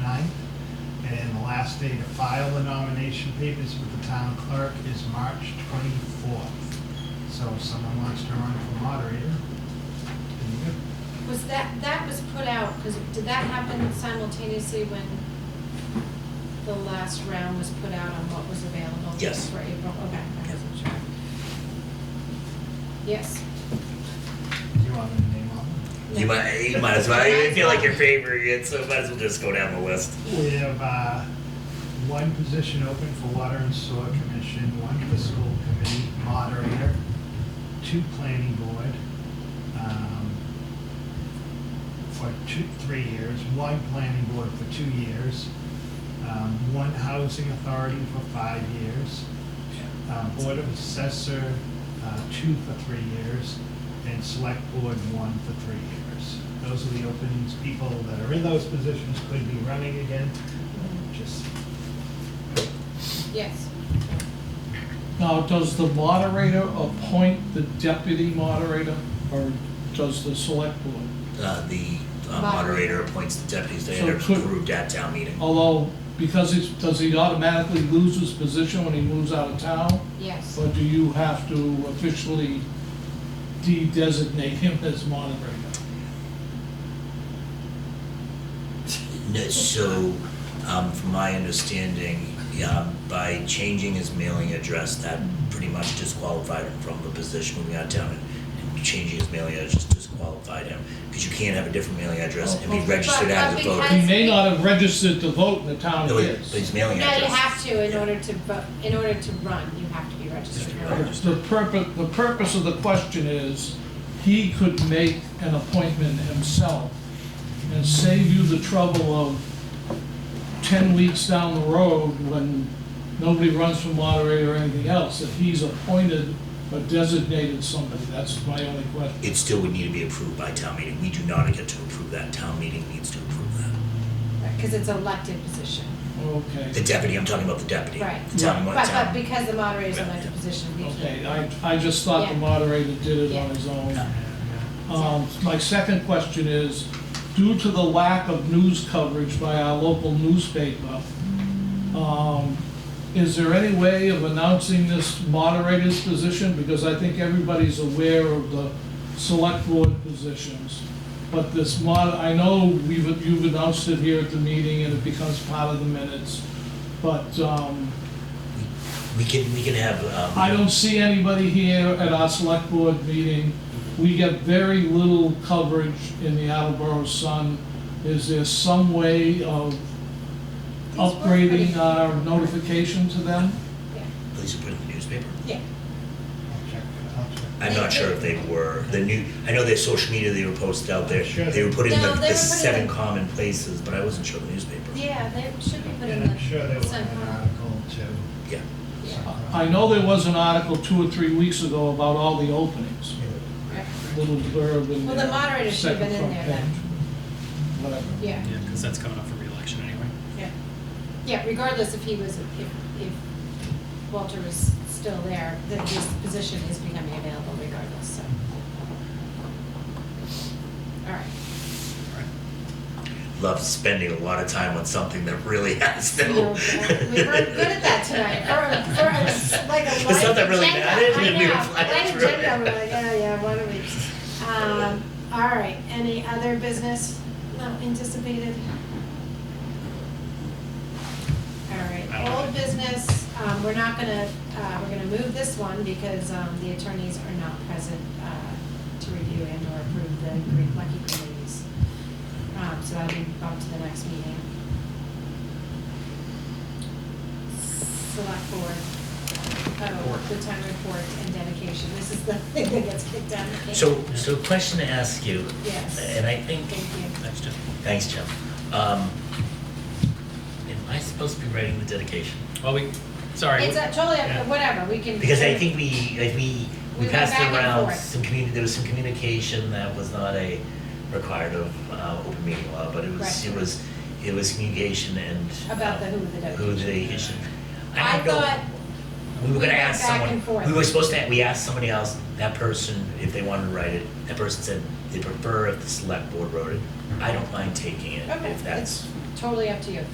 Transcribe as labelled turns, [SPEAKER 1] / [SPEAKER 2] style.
[SPEAKER 1] last day to file the nomination papers with the town clerk is March 24th. So if someone wants to run for moderator, then you.
[SPEAKER 2] Was that, that was put out, because did that happen simultaneously when the last round was put out on what was available?
[SPEAKER 3] Yes.
[SPEAKER 2] For April, okay, I wasn't sure. Yes.
[SPEAKER 1] Do you want me to name all of
[SPEAKER 3] You might, you might as well. I feel like you're favoring it, so might as well just go down the list.
[SPEAKER 1] them? We have uh, one position open for Water and Sewer Commission, one for School Committee Moderator, two Planning Board, um, for two, three years, one Planning Board for two years, um, one Housing Authority for five years, uh, Board of Assessor, uh, two for three years, and Select Board, one for three years. Those are the openings, people that are in those positions could be running again, just,
[SPEAKER 2] Yes.
[SPEAKER 4] Now, does the moderator appoint the deputy moderator, or does the select board?
[SPEAKER 3] Uh, the uh, moderator appoints the deputies. They
[SPEAKER 4] So Oh.
[SPEAKER 3] end up
[SPEAKER 4] could-
[SPEAKER 3] approved at town meeting.
[SPEAKER 4] Although, because it's, does he automatically lose his position when he moves out of town?
[SPEAKER 2] Yes.
[SPEAKER 4] Or do you have to officially de-designate him as moderator?
[SPEAKER 3] No, so, um, from my understanding, yeah, by changing his mailing address, that pretty much disqualified him from the position when we got down. And changing his mailing address disqualified him, because you can't have a different mailing address and be
[SPEAKER 4] Oh, okay.
[SPEAKER 3] registered
[SPEAKER 2] But-
[SPEAKER 3] as a
[SPEAKER 2] but
[SPEAKER 3] voter.
[SPEAKER 4] He may not have registered to vote in the town
[SPEAKER 3] No,
[SPEAKER 4] he
[SPEAKER 3] but but
[SPEAKER 4] is.
[SPEAKER 3] his mailing
[SPEAKER 2] No,
[SPEAKER 3] address.
[SPEAKER 2] you have to, in
[SPEAKER 3] Yeah.
[SPEAKER 2] order to, vo- in order to run, you have to be registered.
[SPEAKER 3] Just to
[SPEAKER 2] voter.
[SPEAKER 3] vote.
[SPEAKER 4] The purpose, the purpose of the question is, he could make an appointment himself and save you the trouble of ten weeks down the road when nobody runs for moderator or anything else, if he's appointed or designated somebody, that's my only question.
[SPEAKER 3] It still would need to be approved by town meeting. We do not get to approve that. Town meeting needs to approve that.
[SPEAKER 2] Because it's elected position.
[SPEAKER 3] The
[SPEAKER 4] Okay,
[SPEAKER 3] deputy, I'm talking about the deputy.
[SPEAKER 2] Right.
[SPEAKER 3] The town,
[SPEAKER 2] But, but
[SPEAKER 3] town.
[SPEAKER 2] because the moderator is
[SPEAKER 3] Yeah,
[SPEAKER 2] elected
[SPEAKER 3] yeah.
[SPEAKER 2] position, we
[SPEAKER 4] okay,
[SPEAKER 2] can't.
[SPEAKER 4] I, I just thought the
[SPEAKER 2] Yeah.
[SPEAKER 4] moderator did it on his own.
[SPEAKER 1] uh,
[SPEAKER 4] Um, My second question is, due to the lack of news coverage by our local newspaper, um, is there any way of announcing this moderator's position? Because I think everybody's aware of the select board positions. But this mod, I know we've, you've announced it here at the meeting and it becomes part of the minutes. But um,
[SPEAKER 3] We can, we can have, um.
[SPEAKER 4] I don't see anybody here at our select board meeting. We get very little coverage in the Attleboro Sun. Is there some way of
[SPEAKER 2] These were pretty-
[SPEAKER 4] upgrading uh, our notification to them?
[SPEAKER 2] Yeah.
[SPEAKER 3] Police are put in the newspaper.
[SPEAKER 2] Yeah.
[SPEAKER 1] I'll check, I'll check.
[SPEAKER 3] I'm not sure if they were, the new, I know their social media, they were posted out there.
[SPEAKER 1] Sure.
[SPEAKER 3] They were put in
[SPEAKER 2] No,
[SPEAKER 3] the,
[SPEAKER 2] they were put
[SPEAKER 3] the
[SPEAKER 2] in
[SPEAKER 3] seven
[SPEAKER 2] the-
[SPEAKER 3] common places, but I wasn't sure the newspaper.
[SPEAKER 2] Yeah, they should be put in
[SPEAKER 1] And
[SPEAKER 2] the.
[SPEAKER 1] I'm sure there was an
[SPEAKER 2] Sun-
[SPEAKER 1] article too.
[SPEAKER 3] Yeah.
[SPEAKER 2] Yeah.
[SPEAKER 4] I know there was an article two or three weeks ago about all the openings,
[SPEAKER 2] Right.
[SPEAKER 4] little blurb in
[SPEAKER 2] Well,
[SPEAKER 4] there.
[SPEAKER 2] the moderator should have been
[SPEAKER 4] second
[SPEAKER 2] in there
[SPEAKER 4] front
[SPEAKER 2] then.
[SPEAKER 4] page, Whatever.
[SPEAKER 2] Yeah,
[SPEAKER 5] Yeah, because that's coming up for reelection anyway.
[SPEAKER 2] yeah. Yeah, regardless if he was, if, if Walter was still there, then his position is becoming available regardless, so. All right.
[SPEAKER 5] All right.
[SPEAKER 3] Love spending a lot of time on something that really has
[SPEAKER 2] We
[SPEAKER 3] no.
[SPEAKER 2] were good at that tonight, for, for a- like a
[SPEAKER 3] It's not
[SPEAKER 2] light
[SPEAKER 3] that really
[SPEAKER 2] agenda.
[SPEAKER 3] mattered,
[SPEAKER 2] I
[SPEAKER 3] and we were
[SPEAKER 2] know.
[SPEAKER 3] flying
[SPEAKER 2] Light
[SPEAKER 3] through it.
[SPEAKER 2] agenda, we're like, yeah, yeah, what are we? Um, all right, any other business not anticipated? All
[SPEAKER 5] I
[SPEAKER 2] right,
[SPEAKER 5] don't
[SPEAKER 2] old
[SPEAKER 5] know.
[SPEAKER 2] business, um, we're not gonna, uh, we're gonna move this one because, um, the attorneys are not present, uh, to review and or approve the Green Lucky committees. Um, so that'll be bumped to the next meeting. Select board, oh, the town report and dedication, this is the thing that gets kicked down. the can.
[SPEAKER 3] So, so question to ask you.
[SPEAKER 2] Yes.
[SPEAKER 3] And I think.
[SPEAKER 2] Thank you.
[SPEAKER 5] Thanks, Jeff.
[SPEAKER 3] Thanks, Jim. Um, am I supposed to be writing the dedication?
[SPEAKER 5] Well, we, sorry.
[SPEAKER 2] It's uh, totally,
[SPEAKER 5] Yeah.
[SPEAKER 2] whatever, we can.
[SPEAKER 3] Because I think we, like,
[SPEAKER 2] We
[SPEAKER 3] we, we
[SPEAKER 2] went
[SPEAKER 3] passed
[SPEAKER 2] back and
[SPEAKER 3] around
[SPEAKER 2] forth.
[SPEAKER 3] some communi, there was some communication that was not a required of, uh, open meeting law, but it was,
[SPEAKER 2] Right.
[SPEAKER 3] it was, it was communication and.
[SPEAKER 2] About the who the
[SPEAKER 3] uh, Who the dedication.
[SPEAKER 2] I
[SPEAKER 3] don't know.
[SPEAKER 2] thought
[SPEAKER 3] We
[SPEAKER 2] we
[SPEAKER 3] were gonna
[SPEAKER 2] went
[SPEAKER 3] ask
[SPEAKER 2] back
[SPEAKER 3] someone,
[SPEAKER 2] and forth.
[SPEAKER 3] we were supposed to, we asked somebody else, that person, if they wanted to write it, that person said they prefer if the select board wrote it. I don't mind taking it,
[SPEAKER 2] Okay,
[SPEAKER 3] if that's.
[SPEAKER 2] it's totally up to you.